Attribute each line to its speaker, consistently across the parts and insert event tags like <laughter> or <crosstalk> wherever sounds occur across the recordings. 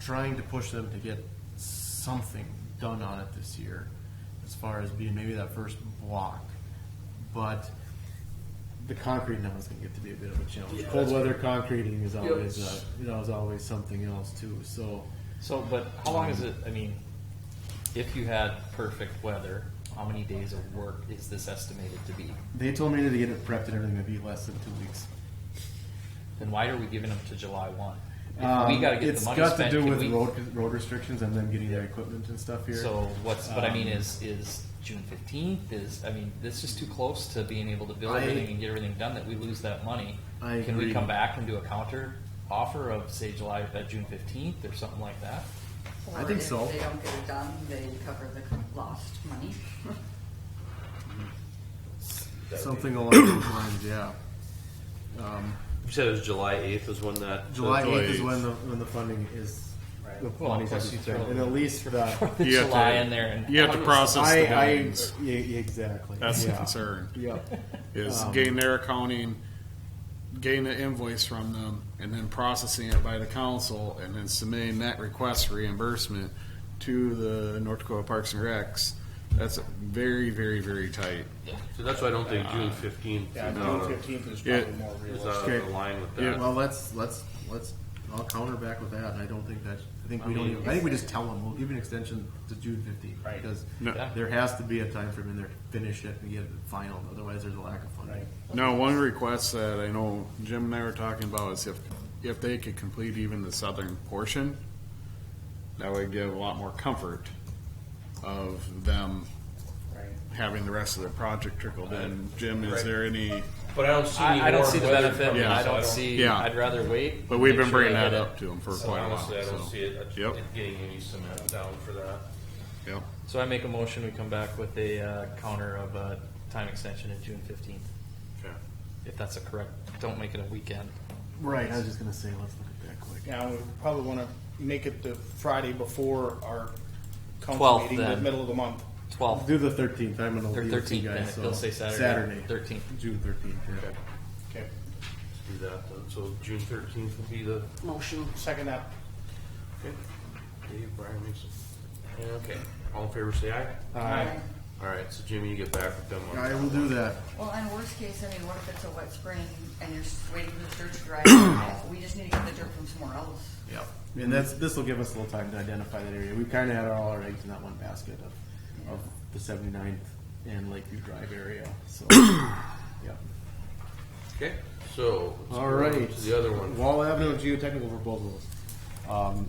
Speaker 1: trying to push them to get something done on it this year, as far as being maybe that first block. But the concrete now is going to get to be a bit of a challenge.
Speaker 2: Yeah,
Speaker 1: Cold
Speaker 2: that's-
Speaker 1: weather concreting is always,
Speaker 2: Yep.
Speaker 1: uh, you know, is always something else too. So
Speaker 3: So, but how long is it, I mean, if you had perfect weather, how many days of work is this estimated to be?
Speaker 1: they told me to get it prepped and everything would be less than two weeks.
Speaker 3: Then why are we giving them to July one? If we
Speaker 1: Um,
Speaker 3: gotta get
Speaker 1: it's
Speaker 3: the money
Speaker 1: got
Speaker 3: spent,
Speaker 1: to do
Speaker 3: can
Speaker 1: with
Speaker 3: we-
Speaker 1: road road restrictions and them getting their equipment and stuff here.
Speaker 3: So what's, what I mean
Speaker 1: Um,
Speaker 3: is, is June fifteenth is, I mean, this is too close to being able to build
Speaker 1: I-
Speaker 3: everything and get everything done that we lose that money.
Speaker 1: I
Speaker 3: Can we
Speaker 1: agree.
Speaker 3: come back and do a counter offer of say July, uh, June fifteenth or something like that?
Speaker 1: I think so.
Speaker 4: Or if they don't get it done, they cover the co- lost
Speaker 1: <laughs>
Speaker 4: money.
Speaker 1: something along those lines, yeah. Um,
Speaker 5: You said it was July eighth is when that.
Speaker 1: July
Speaker 2: July
Speaker 1: eighth is
Speaker 2: 8th.
Speaker 1: when the when the funding is.
Speaker 3: Right.
Speaker 1: The
Speaker 3: Well,
Speaker 1: funding
Speaker 3: of course
Speaker 1: has to
Speaker 3: you
Speaker 1: start.
Speaker 3: throw
Speaker 1: and at least
Speaker 3: <laughs>
Speaker 1: the
Speaker 3: The
Speaker 2: You have
Speaker 3: July
Speaker 2: to-
Speaker 3: in there and.
Speaker 2: You have to process
Speaker 1: I,
Speaker 2: the
Speaker 1: I
Speaker 2: billings.
Speaker 1: yeah, yeah, exactly.
Speaker 2: That's the
Speaker 1: yeah.
Speaker 2: concern.
Speaker 1: Yep.
Speaker 2: Is
Speaker 1: Um,
Speaker 2: getting their accounting, getting an invoice from them, and then processing it by the council, and then submitting that request for reimbursement to the North Dakota Parks and Recs. That's very, very, very tight.
Speaker 5: So that's why I don't think June fifteenth. uh,
Speaker 6: Yeah, June fifteenth is
Speaker 2: Yeah.
Speaker 6: probably more
Speaker 5: Is
Speaker 6: realistic.
Speaker 5: not
Speaker 1: Okay.
Speaker 5: aligned with
Speaker 2: Yeah.
Speaker 5: that.
Speaker 1: Well, let's let's let's. I'll counter back with that, and I don't think that. I think we
Speaker 5: I
Speaker 1: don't.
Speaker 5: mean-
Speaker 1: Even, I think we just tell them we'll give you an extension to June fifteenth
Speaker 6: Right.
Speaker 1: because
Speaker 2: No.
Speaker 3: Yeah.
Speaker 1: there has to be a time frame in there to finish it and get it final. Otherwise, there's a lack of funding.
Speaker 6: Right.
Speaker 2: Now, one request that I know Jim and I were talking about is if, if they could complete even the southern portion, that would give a lot more comfort of them
Speaker 6: Right.
Speaker 2: having the rest of the project trickled in. Jim, is
Speaker 5: Right.
Speaker 2: there any,
Speaker 5: But I don't see. any
Speaker 3: I, I don't
Speaker 5: more
Speaker 3: see the
Speaker 5: weather
Speaker 3: benefit,
Speaker 5: from it,
Speaker 2: Yeah.
Speaker 3: I
Speaker 5: so
Speaker 3: don't see,
Speaker 2: Yeah.
Speaker 3: I'd rather wait.
Speaker 2: but we've
Speaker 3: make
Speaker 2: been
Speaker 3: sure
Speaker 2: bringing
Speaker 3: they
Speaker 2: that
Speaker 3: hit
Speaker 2: up to them for
Speaker 5: So
Speaker 2: quite a while.
Speaker 5: honestly, I don't
Speaker 2: so-
Speaker 5: see it,
Speaker 2: Yep.
Speaker 5: it getting any cement down for that.
Speaker 2: Yep.
Speaker 3: it. So I make a motion, we come back with a, uh, counter of a time extension of June fifteenth, if that's a correct, don't make it a weekend.
Speaker 1: Right. I was just gonna say let's look at that quick.
Speaker 6: Now, we probably wanna make it the Friday before our council
Speaker 3: 12th
Speaker 6: meeting, the
Speaker 3: then.
Speaker 6: middle of the month.
Speaker 3: Twelve,
Speaker 1: Do the thirteenth. I'm gonna
Speaker 3: or
Speaker 1: leave with you
Speaker 3: thirteenth, then,
Speaker 1: guys.
Speaker 3: if
Speaker 1: So
Speaker 3: they'll say Saturday.
Speaker 1: Saturday.
Speaker 3: Thirteenth.
Speaker 1: June thirteenth. Yeah.
Speaker 6: Okay,
Speaker 5: Let's do that then. So June thirteenth will be the.
Speaker 6: motion, second that.
Speaker 5: Dave Brian makes it. Yeah, Okay. All in favor, say aye.
Speaker 6: Aye.
Speaker 5: All right. So Jimmy, you get back with them. on-
Speaker 1: I will do that.
Speaker 4: Well, and worst case, I mean, what if it's a wet spring and you're just waiting for the dirt to dry? <coughs> We just need to get the dirt from somewhere else.
Speaker 1: Yeah. And that's this will give us a little time to identify that area. We kind of had all our eggs in that one basket of, of the 79th and Lakeview Drive area.
Speaker 5: <coughs>
Speaker 1: So, yeah.
Speaker 5: Okay. So. let's
Speaker 1: All
Speaker 5: go on
Speaker 1: right.
Speaker 5: To the other one.
Speaker 1: Wall Avenue geotechnical proposals. Um,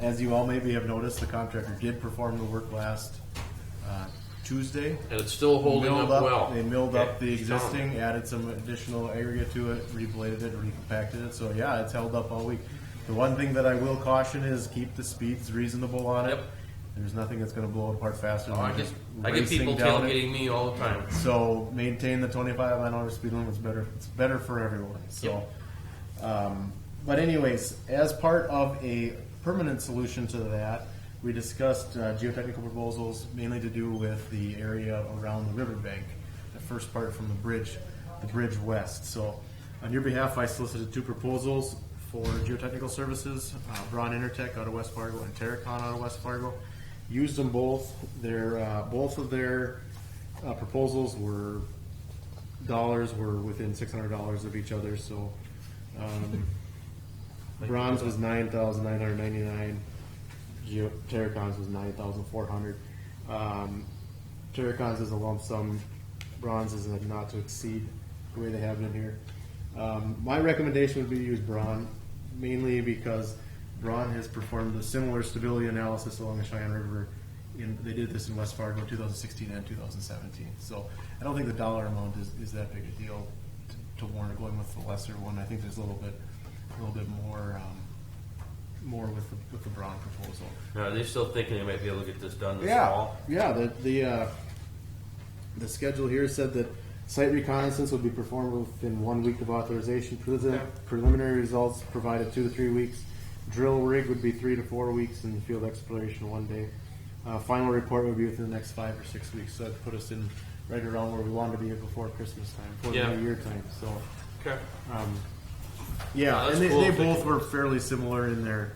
Speaker 1: as you all maybe have noticed, the contractor did perform the work last uh, Tuesday.
Speaker 5: And it's still holding
Speaker 1: Milled
Speaker 5: up, well.
Speaker 1: They milled up the
Speaker 5: Okay, just tell 'em.
Speaker 1: existing, added some additional aggregate to it, rebladed it, recompacted it. So yeah, it's held up all week. The one thing that I will caution is keep the speeds reasonable on it.
Speaker 5: Yep.
Speaker 1: There's nothing that's going to blow it apart faster
Speaker 5: Oh, I
Speaker 1: than
Speaker 5: get,
Speaker 1: just
Speaker 5: I get
Speaker 1: racing
Speaker 5: people
Speaker 1: down it.
Speaker 5: tailgating me all the time.
Speaker 1: So maintain the 25 mile an hour speed limit. It's better. It's better for everyone. So, um, but anyways, as part of a permanent solution to that, we discussed uh, geotechnical proposals mainly to do with the area around the riverbank, the first part from the bridge, the bridge west. So, on your behalf, I solicited two proposals for geotechnical services: uh, Braun Intertech out of West Fargo and Terracon out of West Fargo. Used them both. Their uh, both of their uh, proposals were dollars were within six hundred dollars of each other. So um, bronze was nine thousand nine hundred ninety nine. Geo Terracons was nine thousand four hundred. Um, Terracons is a lump sum. Bronze is a not to exceed the way they have it in here. Um, my recommendation would be to use bronze mainly because Braun has performed a similar stability analysis along the Cheyenne River. In, they did this in West Fargo in 2016 and 2017. So I don't think the dollar amount is, is that big a deal to, to warrant going with the lesser one. I think there's a little bit, a little bit more, um, more with the, with the Braun proposal.
Speaker 5: Now, are they still thinking they might be able to get this done this
Speaker 1: Yeah,
Speaker 5: fall?
Speaker 1: yeah, the, the, uh, the schedule here said that site reconnaissance would be performed within one week of authorization. Prelim- Preliminary results provided two to three weeks. Drill rig would be three to four weeks and field exploration one day. Uh, final report would be within the next five or six weeks, so that'd put us in right around where we wanted to be before Christmas time, before
Speaker 5: Yeah.
Speaker 1: the new year time, so.
Speaker 5: Okay.
Speaker 1: Um, yeah,
Speaker 5: Yeah,
Speaker 1: and
Speaker 5: that's
Speaker 1: they,
Speaker 5: cool.
Speaker 1: they both were fairly similar in their